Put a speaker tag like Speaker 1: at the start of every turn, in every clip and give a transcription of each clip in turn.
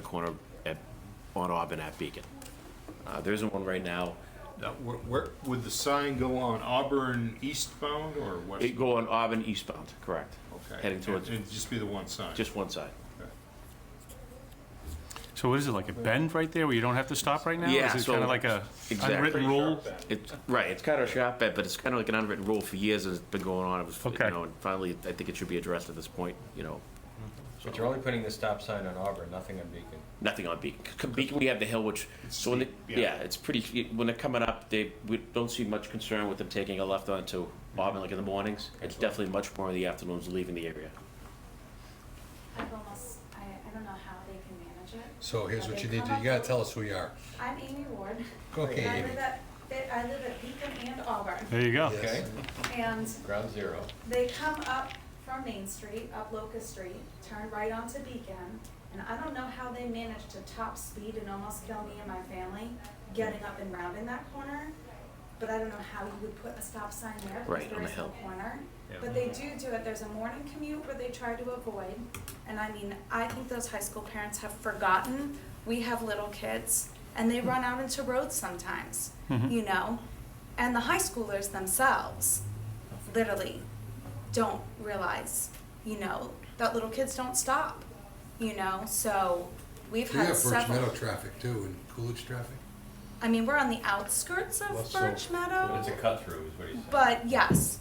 Speaker 1: the corner at, on Auburn at Beacon. Uh, there isn't one right now.
Speaker 2: Now, where, where, would the sign go on Auburn eastbound or west?
Speaker 1: It go on Auburn eastbound, correct?
Speaker 2: Okay.
Speaker 1: Heading towards,
Speaker 2: It'd just be the one sign?
Speaker 1: just one side.
Speaker 3: So what is it, like a bend right there where you don't have to stop right now?
Speaker 1: Yeah,
Speaker 3: Is
Speaker 1: so-
Speaker 3: it kind of like a
Speaker 1: Exactly.
Speaker 3: unwritten rule?
Speaker 1: It's, right, it's kind of a shot bet, but it's kind of like an unwritten rule for years, and it's been going on, it was, you
Speaker 3: Okay.
Speaker 1: know, and finally, I think it should be addressed at this point, you know,
Speaker 4: But you're only putting the stop sign on Auburn, nothing on Beacon.
Speaker 1: nothing on Beacon. C- Beacon, we have the hill, which, so when, they-
Speaker 2: steep, yeah.
Speaker 1: yeah, it's pretty, when they're coming up, they, we don't see much concern with them taking a left onto Auburn, like in the mornings. It's definitely much more in the afternoons leaving the area.
Speaker 5: I've almost, I, I don't know how they can manage it.
Speaker 6: So here's
Speaker 5: But
Speaker 6: what
Speaker 5: they
Speaker 6: you need
Speaker 5: come
Speaker 6: to,
Speaker 5: up
Speaker 6: you gotta
Speaker 5: with-
Speaker 6: tell us who you are.
Speaker 5: I'm Amy Ward.
Speaker 6: Okay,
Speaker 5: I
Speaker 6: Amy.
Speaker 5: live at, I live at Beacon and Auburn,
Speaker 3: There you go.
Speaker 6: Yes.
Speaker 5: and
Speaker 4: Ground zero.
Speaker 5: they come up from Main Street, up Locust Street, turn right onto Beacon, and I don't know how they manage to top speed and almost kill me and my family getting up and rounding that corner, but I don't know how you would put a stop sign there
Speaker 1: Right,
Speaker 5: because
Speaker 1: on
Speaker 5: there
Speaker 1: the
Speaker 5: is no
Speaker 1: hill.
Speaker 5: corner. But they do do it, there's a morning commute where they try to avoid, and I mean, I think those high school parents have forgotten, we have little kids, and they run out into roads sometimes,
Speaker 1: Mm-hmm.
Speaker 5: you know? And the high schoolers themselves, literally don't realize, you know, that little kids don't stop, you know. So we've
Speaker 6: We
Speaker 5: had
Speaker 6: have Birch
Speaker 5: several.
Speaker 6: Meadow traffic too, and Coolidge traffic.
Speaker 5: I mean, we're on the outskirts of
Speaker 6: Well, so-
Speaker 5: Birch
Speaker 4: But
Speaker 5: Meadow,
Speaker 4: it's a cut through, is what he's saying.
Speaker 5: but yes.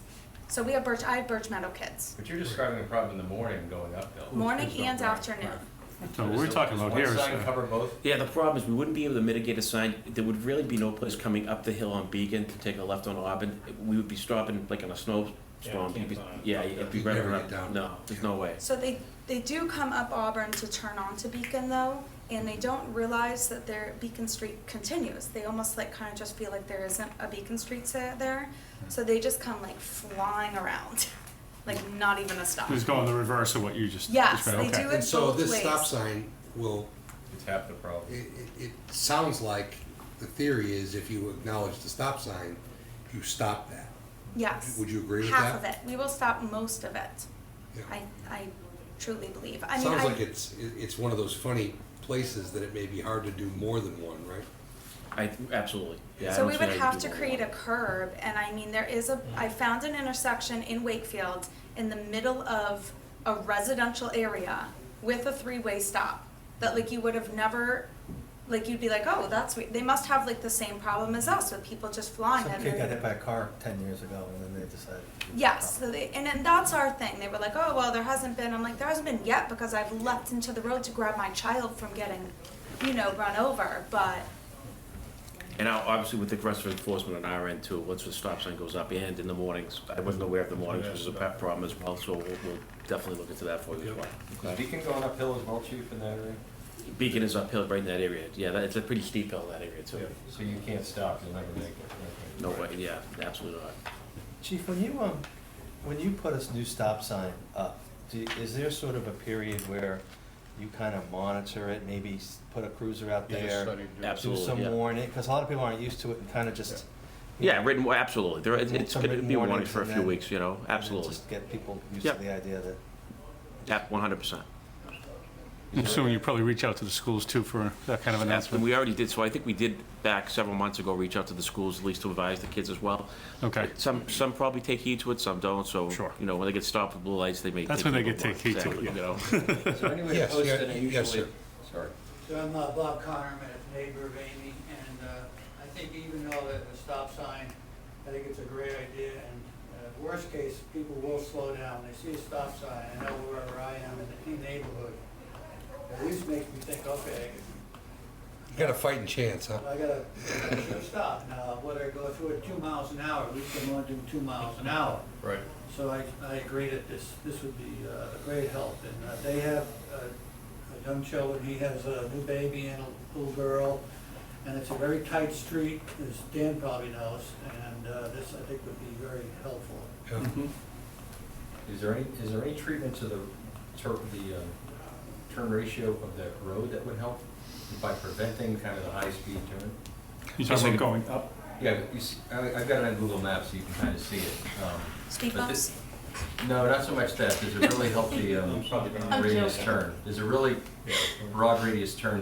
Speaker 5: So we have Birch. I have Birch Meadow kids,
Speaker 4: But you're describing a problem in the morning going
Speaker 6: Oh,
Speaker 4: uphill.
Speaker 5: morning
Speaker 4: There's no
Speaker 5: and
Speaker 4: ground.
Speaker 5: afternoon.
Speaker 3: So what we're
Speaker 4: Does-
Speaker 3: talking
Speaker 4: does
Speaker 3: about here is,
Speaker 4: One sign
Speaker 3: uh,
Speaker 4: cover both?
Speaker 1: Yeah, the problem is we wouldn't be able to mitigate a sign. There would really be no place coming up the hill on Beacon to take a left on Auburn. We would be stopping like on a snowstorm.
Speaker 2: Yeah,
Speaker 1: You'd be-
Speaker 2: can't, uh,
Speaker 1: Yeah, it'd be
Speaker 6: You'd
Speaker 1: right
Speaker 6: never
Speaker 1: around.
Speaker 6: get down.
Speaker 1: No, there's no way.
Speaker 5: So they they do come up Auburn to turn on to Beacon though, and they don't realize that their Beacon Street continues. They almost like kind of just feel like there isn't a Beacon Street se- there, so they just come like flying around, like not even a stop.
Speaker 3: it's going the reverse of what you just
Speaker 5: Yes,
Speaker 3: described.
Speaker 5: they
Speaker 3: Okay.
Speaker 5: do it
Speaker 6: And so
Speaker 5: both
Speaker 6: this stop
Speaker 5: ways.
Speaker 6: sign will,
Speaker 4: It's half the
Speaker 6: it,
Speaker 4: problem.
Speaker 6: it, it sounds like, the theory is if you acknowledge the stop sign, you stop that.
Speaker 5: Yes.
Speaker 6: Would you agree with
Speaker 5: Half of it.
Speaker 6: that?
Speaker 5: We will stop most of it.
Speaker 6: Yeah.
Speaker 5: I, I truly believe. I mean,
Speaker 6: Sounds
Speaker 5: I,
Speaker 6: like it's, it- it's one of those funny places that it may be hard to do more than one, right?
Speaker 1: I, absolutely. Yeah, I
Speaker 5: So
Speaker 1: don't
Speaker 5: we
Speaker 1: see
Speaker 5: would
Speaker 1: how you
Speaker 5: have
Speaker 1: do
Speaker 5: to
Speaker 1: one.
Speaker 5: create a curb, and I mean, there is a, I found an intersection in Wakefield in the middle of a residential area with a three-way stop, that like you would have never, like you'd be like, oh, that's, we-" they must have like the same problem as us with people just flying
Speaker 7: Some
Speaker 5: at
Speaker 7: kid
Speaker 5: them.
Speaker 7: got hit by a car ten years ago, and then they decided. to do the
Speaker 5: Yes,
Speaker 7: cop.
Speaker 5: so they, and then that's our thing. They were like, oh, well, there hasn't been. I'm like, there hasn't been yet because I've leapt into the road to grab my child from getting, you know, run over. But
Speaker 1: And now, obviously, with the rest of enforcement on our end too, once the stop sign goes up and in the mornings, I wasn't aware of the mornings, which is a pet problem as well, so we'll, we'll definitely look into that for you as well.
Speaker 4: Is Beacon going uphill as well, chief, in that area?
Speaker 1: Beacon is uphill right in that area. Yeah, that, it's a pretty steep hill, that area too.
Speaker 4: So you can't stop, you'll never make it. okay.
Speaker 1: No way, yeah, absolutely not.
Speaker 7: Chief, when you, um, when you put a new stop sign up, do, is there sort of a period where you kind of monitor it, maybe s- put a cruiser out there? Do
Speaker 1: Absolutely,
Speaker 7: some
Speaker 1: yeah.
Speaker 7: warning, because a lot of people aren't used to it and kind of just. you
Speaker 1: Yeah,
Speaker 7: know,
Speaker 1: written, well, absolutely. There, it's,
Speaker 7: Some
Speaker 1: it's gonna
Speaker 7: written
Speaker 1: be warning
Speaker 7: warnings
Speaker 1: for a
Speaker 7: and
Speaker 1: few
Speaker 7: then-
Speaker 1: weeks, you know,
Speaker 7: and then
Speaker 1: absolutely.
Speaker 7: Just get people used to
Speaker 1: Yep.
Speaker 7: the idea that.
Speaker 1: Yeah, one hundred percent.
Speaker 3: I'm assuming you probably reach out to the schools too for that kind of
Speaker 1: And
Speaker 3: announcement.
Speaker 1: we already did, so I think we did back several months ago, reach out to the schools, at least to advise the kids as well.
Speaker 3: Okay.
Speaker 1: Some, some probably take heed to it, some don't, so,
Speaker 3: Sure.
Speaker 1: you know, when they get stopped with blue lights, they may.
Speaker 3: That's
Speaker 1: take
Speaker 3: when they
Speaker 1: a little
Speaker 3: get
Speaker 1: more.
Speaker 3: take heed to it,
Speaker 1: Exactly, you know.
Speaker 4: Is there any way to
Speaker 6: Yes,
Speaker 4: post
Speaker 6: yeah,
Speaker 4: it
Speaker 6: yes,
Speaker 4: usually?
Speaker 6: sir.
Speaker 4: Sorry.
Speaker 8: So I'm uh, Bob Connor, I'm a neighbor of Amy, and uh, I think even though that the stop sign, I think it's a great idea, and uh, worst case, people will slow down, they see a stop sign, I know wherever I am in the neighborhood. At least makes me think, okay,
Speaker 6: You got a fighting chance, huh?
Speaker 8: I gotta I should stop now, whether I go through it two miles an hour, at least I'm only doing two miles an hour.
Speaker 4: Right.
Speaker 8: So I, I agree that this, this would be uh, a great help, and uh, they have uh, young children, he has a new baby and a little girl, and it's a very tight street, as Dan probably knows, and uh, this, I think, would be very helpful.
Speaker 6: Yeah.
Speaker 1: Mm-hmm.
Speaker 4: Is there any, is there any treatment to the tur the, um, turn ratio of that road that would help by preventing kind of the high-speed turn?
Speaker 3: You're talking about going up?
Speaker 4: Yeah, you see, I, I've got it on Google Maps, so you can kind of see it. um,
Speaker 5: Speed
Speaker 4: but this- No, not so much that, does it really help the um,
Speaker 2: I'm sorry.
Speaker 4: radius turn? Is it really broad radius turn